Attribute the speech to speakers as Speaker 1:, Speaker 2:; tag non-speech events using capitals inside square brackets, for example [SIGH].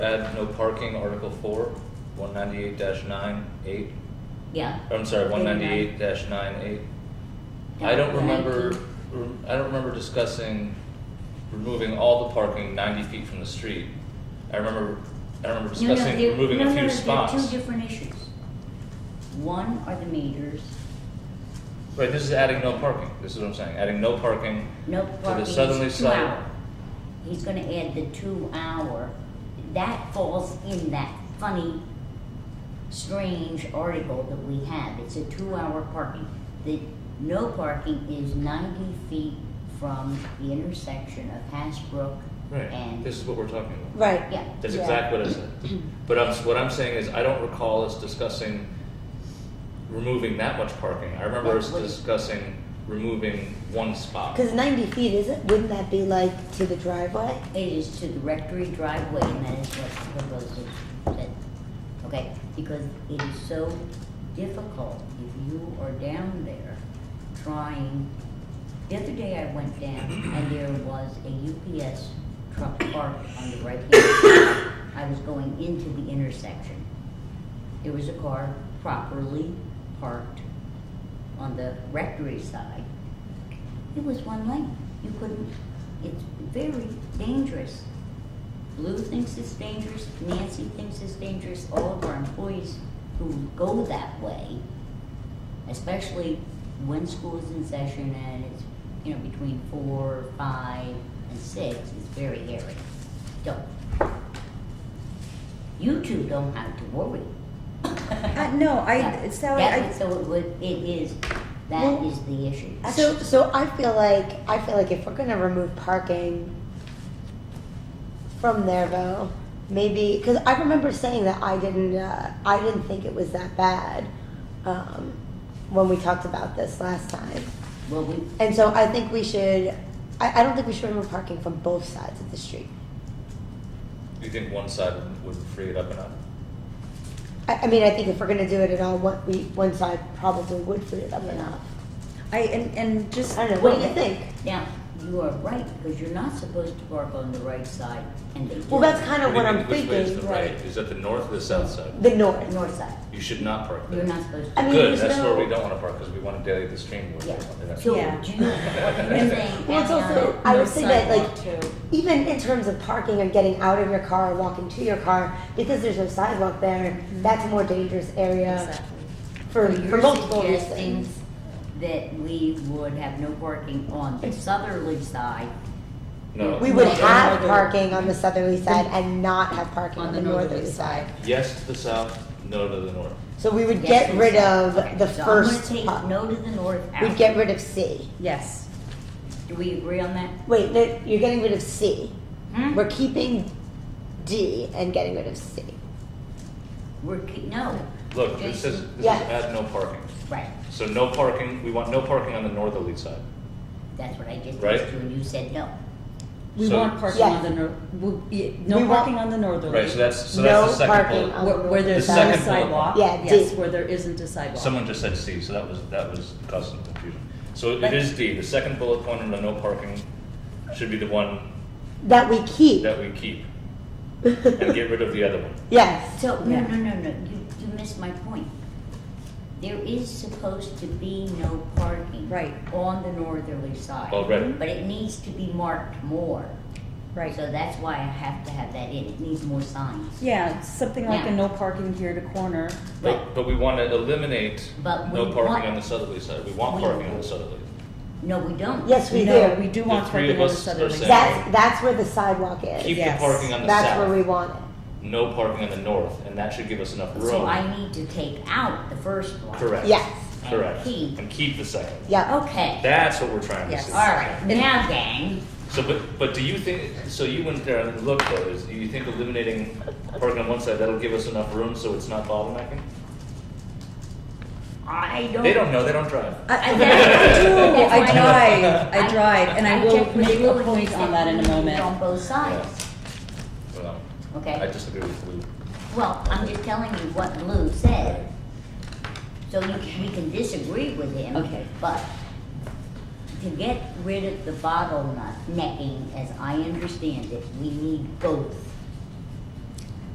Speaker 1: Add no parking, Article four, one ninety-eight dash nine eight,
Speaker 2: Yeah.
Speaker 1: I'm sorry, one ninety-eight dash nine eight. Um, I don't remember, I don't remember discussing removing all the parking ninety feet from the street. I remember, I remember
Speaker 2: No, no,
Speaker 1: discussing
Speaker 2: there-
Speaker 1: removing
Speaker 2: no,
Speaker 1: a
Speaker 2: no,
Speaker 1: few
Speaker 2: no, there are Two
Speaker 1: spots.
Speaker 2: different issues. One are the meters,
Speaker 1: Right, this is adding no parking, this is what I'm saying, adding no parking,
Speaker 2: no
Speaker 1: the
Speaker 2: parking, it's
Speaker 1: southerly
Speaker 2: two
Speaker 1: side.
Speaker 2: hour. He's gonna add the two hour, that falls in that funny, strange article that we have, it's a two hour parking. The no parking is ninety feet from the intersection of Hasbrook
Speaker 1: right,
Speaker 2: and,
Speaker 1: this is what we're talking about.
Speaker 3: Right.
Speaker 2: yeah,
Speaker 1: That's
Speaker 3: Yeah.
Speaker 1: exactly what I said. But I'm, what I'm saying is, I don't recall us discussing removing that much parking. I remember us
Speaker 2: That's what-
Speaker 1: discussing removing one spot.
Speaker 3: Because 90 feet, isn't, wouldn't that be like to the driveway?
Speaker 2: It is to the rectory driveway, and that is what the proposal said, okay? Because it is so difficult if you are down there trying. The other day I went down and there was a UPS truck parked on the right hand side. I was going into the intersection. There was a car properly parked on the rectory side. It was one lane. You couldn't, it's very dangerous. Lou thinks it's dangerous, Nancy thinks it's dangerous, all of our employees who go that way, especially when school is in session and it's, you know, between four, five, and six, it's very hairy. So, you two don't have to worry.
Speaker 4: Uh, no,
Speaker 2: [LAUGHS]
Speaker 4: I,
Speaker 2: That-
Speaker 4: Sally,
Speaker 2: that-
Speaker 4: I,
Speaker 2: So it would, it is, that
Speaker 3: Well,
Speaker 2: is the issue.
Speaker 3: So, so I feel like, I feel like if we're gonna remove parking from there though, maybe, because I remember saying that I didn't, uh, I didn't think it was that bad, um, when we talked about this last time.
Speaker 2: Well, we,
Speaker 3: And so I think we should, I, I don't think we should remove parking from both sides of the street.
Speaker 1: Do you think one side would- would free it up enough?
Speaker 3: I, I mean, I think if we're gonna do it at all, what we, one side probably would free it up
Speaker 2: Yeah.
Speaker 3: enough.
Speaker 4: I, and, and just,
Speaker 3: I don't know, what do you
Speaker 2: Well,
Speaker 3: think?
Speaker 2: Now, you are right, because you're not supposed to park on the right side, and they do.
Speaker 3: Well, that's kind of
Speaker 1: do you
Speaker 3: what I'm
Speaker 1: think- Which way is the
Speaker 3: thinking,
Speaker 1: right? Is that the north or the south side?
Speaker 3: the north.
Speaker 2: North side,
Speaker 1: You should not park
Speaker 2: you're
Speaker 1: there.
Speaker 2: not supposed
Speaker 3: I
Speaker 2: to.
Speaker 3: mean,
Speaker 1: Good,
Speaker 3: there's
Speaker 1: that's
Speaker 3: no-
Speaker 1: where we don't wanna park, because we wanna delay the stream. with
Speaker 2: Yeah,
Speaker 1: it. That's-
Speaker 2: so do you,
Speaker 4: Yeah.
Speaker 2: what [LAUGHS] you're saying,
Speaker 3: [LAUGHS] Well, it's
Speaker 2: Ariana,
Speaker 3: also- I would say that, like-
Speaker 4: too.
Speaker 3: even in terms of parking and getting out of your car or walking to your car, because there's no sidewalk there, that's a more dangerous area for,
Speaker 2: so
Speaker 3: for multiple
Speaker 2: Mm-hmm. You're suggesting
Speaker 3: reasons.
Speaker 2: that we would have no parking on the southerly side,
Speaker 1: No.
Speaker 3: We would
Speaker 4: Not the
Speaker 3: have
Speaker 4: northerly-
Speaker 3: parking on the southerly side and not have parking
Speaker 4: On
Speaker 3: on the
Speaker 4: the
Speaker 3: northerly
Speaker 4: northerly
Speaker 3: side.
Speaker 1: Yes to the south, no to the north.
Speaker 3: So we would
Speaker 2: Yes,
Speaker 3: get
Speaker 2: we
Speaker 3: rid
Speaker 2: said.
Speaker 3: of
Speaker 2: Okay,
Speaker 3: the
Speaker 2: so
Speaker 3: first,
Speaker 2: I'm
Speaker 3: part.
Speaker 2: gonna take no to the north out.
Speaker 3: we'd get rid of C.
Speaker 4: Yes.
Speaker 2: Do we agree on that?
Speaker 3: Wait, no, you're getting rid of C.
Speaker 2: Hmm?
Speaker 3: We're keeping D and getting rid of C.
Speaker 2: We're, ke- no,
Speaker 1: Look, this
Speaker 2: Jason.
Speaker 1: says, this is
Speaker 3: Yeah.
Speaker 1: add no parking.
Speaker 2: right,
Speaker 1: So no parking, we want no parking on the northerly side.
Speaker 2: that's what I just
Speaker 1: Right.
Speaker 2: asked you, and you said no.
Speaker 4: We
Speaker 1: So-
Speaker 4: want parking
Speaker 3: Yes.
Speaker 4: on the nor, we- yeah, no
Speaker 3: We want-
Speaker 4: parking on the northerly.
Speaker 1: Right, so that's, so that's the
Speaker 3: No
Speaker 1: second
Speaker 3: parking
Speaker 1: bullet.
Speaker 3: on the
Speaker 4: Where, where
Speaker 3: northerly
Speaker 4: there's
Speaker 1: The
Speaker 4: not
Speaker 3: side.
Speaker 4: a
Speaker 1: second bullet.
Speaker 4: sidewalk.
Speaker 3: Yeah,
Speaker 4: Yes,
Speaker 3: D.
Speaker 4: where there isn't a sidewalk.
Speaker 1: Someone just said C, so that was, that was causing some confusion. So it is D, the second bullet point under no parking should be the one
Speaker 3: That we keep. [LAUGHS]
Speaker 1: that we keep and get rid of the other one.
Speaker 3: Yes.
Speaker 2: So, no,
Speaker 4: Yeah.
Speaker 2: no, no, no, you, you missed my point. There is supposed to be no parking.
Speaker 4: Right.
Speaker 2: On the northerly side.
Speaker 1: Already.
Speaker 2: But it needs to be marked more.
Speaker 4: Right.
Speaker 2: So that's why I have to have that in, it needs more signs.
Speaker 4: Yeah, something like a
Speaker 2: Yeah.
Speaker 4: no parking here to corner.
Speaker 1: But, but we want to eliminate
Speaker 2: But
Speaker 1: no
Speaker 2: we
Speaker 1: parking
Speaker 2: want-
Speaker 1: on the southerly side. We want
Speaker 2: We-
Speaker 1: parking on the southerly.
Speaker 2: No, we don't.
Speaker 3: Yes, we
Speaker 4: No,
Speaker 3: do.
Speaker 4: We do
Speaker 1: The
Speaker 4: want
Speaker 1: three
Speaker 4: parking
Speaker 1: of
Speaker 4: on
Speaker 1: us
Speaker 4: the
Speaker 1: are
Speaker 4: southerly.
Speaker 1: saying-
Speaker 4: side.
Speaker 3: That's, that's where the sidewalk is.
Speaker 1: Keep the
Speaker 4: Yes.
Speaker 1: parking on the
Speaker 3: That's where we
Speaker 1: south,
Speaker 3: want it.
Speaker 1: no parking on the north, and that should give us enough
Speaker 2: So
Speaker 1: room.
Speaker 2: I need to take out the first one.
Speaker 1: Correct.
Speaker 3: Yes.
Speaker 2: And
Speaker 1: Correct.
Speaker 2: keep.
Speaker 1: And keep the second.
Speaker 3: Yeah.
Speaker 2: Okay,
Speaker 1: That's what we're trying to
Speaker 4: Yes.
Speaker 1: see.
Speaker 2: alright, now gang,
Speaker 1: So, but, but do you think, so you went there and looked though, is, do you think eliminating parking on one side, that'll give us enough room so it's not bottlenecking?
Speaker 2: I don't.
Speaker 1: They don't know, they don't drive.
Speaker 4: I, I,
Speaker 2: That's
Speaker 4: [LAUGHS]
Speaker 2: why
Speaker 4: I
Speaker 2: I-
Speaker 4: do. I drive. I drive, and I will
Speaker 2: checked with
Speaker 4: make
Speaker 2: Lou
Speaker 4: a
Speaker 2: and he
Speaker 4: point
Speaker 2: said
Speaker 4: on that in
Speaker 2: we
Speaker 4: a
Speaker 2: need it
Speaker 4: moment.
Speaker 2: On both sides,
Speaker 1: Well,
Speaker 2: okay?
Speaker 1: I disagree with Lou.
Speaker 2: Well, I'm just telling you what Lou said, so you, we can disagree with him.
Speaker 4: Okay.
Speaker 2: But to get rid of the bottleneck, necking, as I understand it, we need both.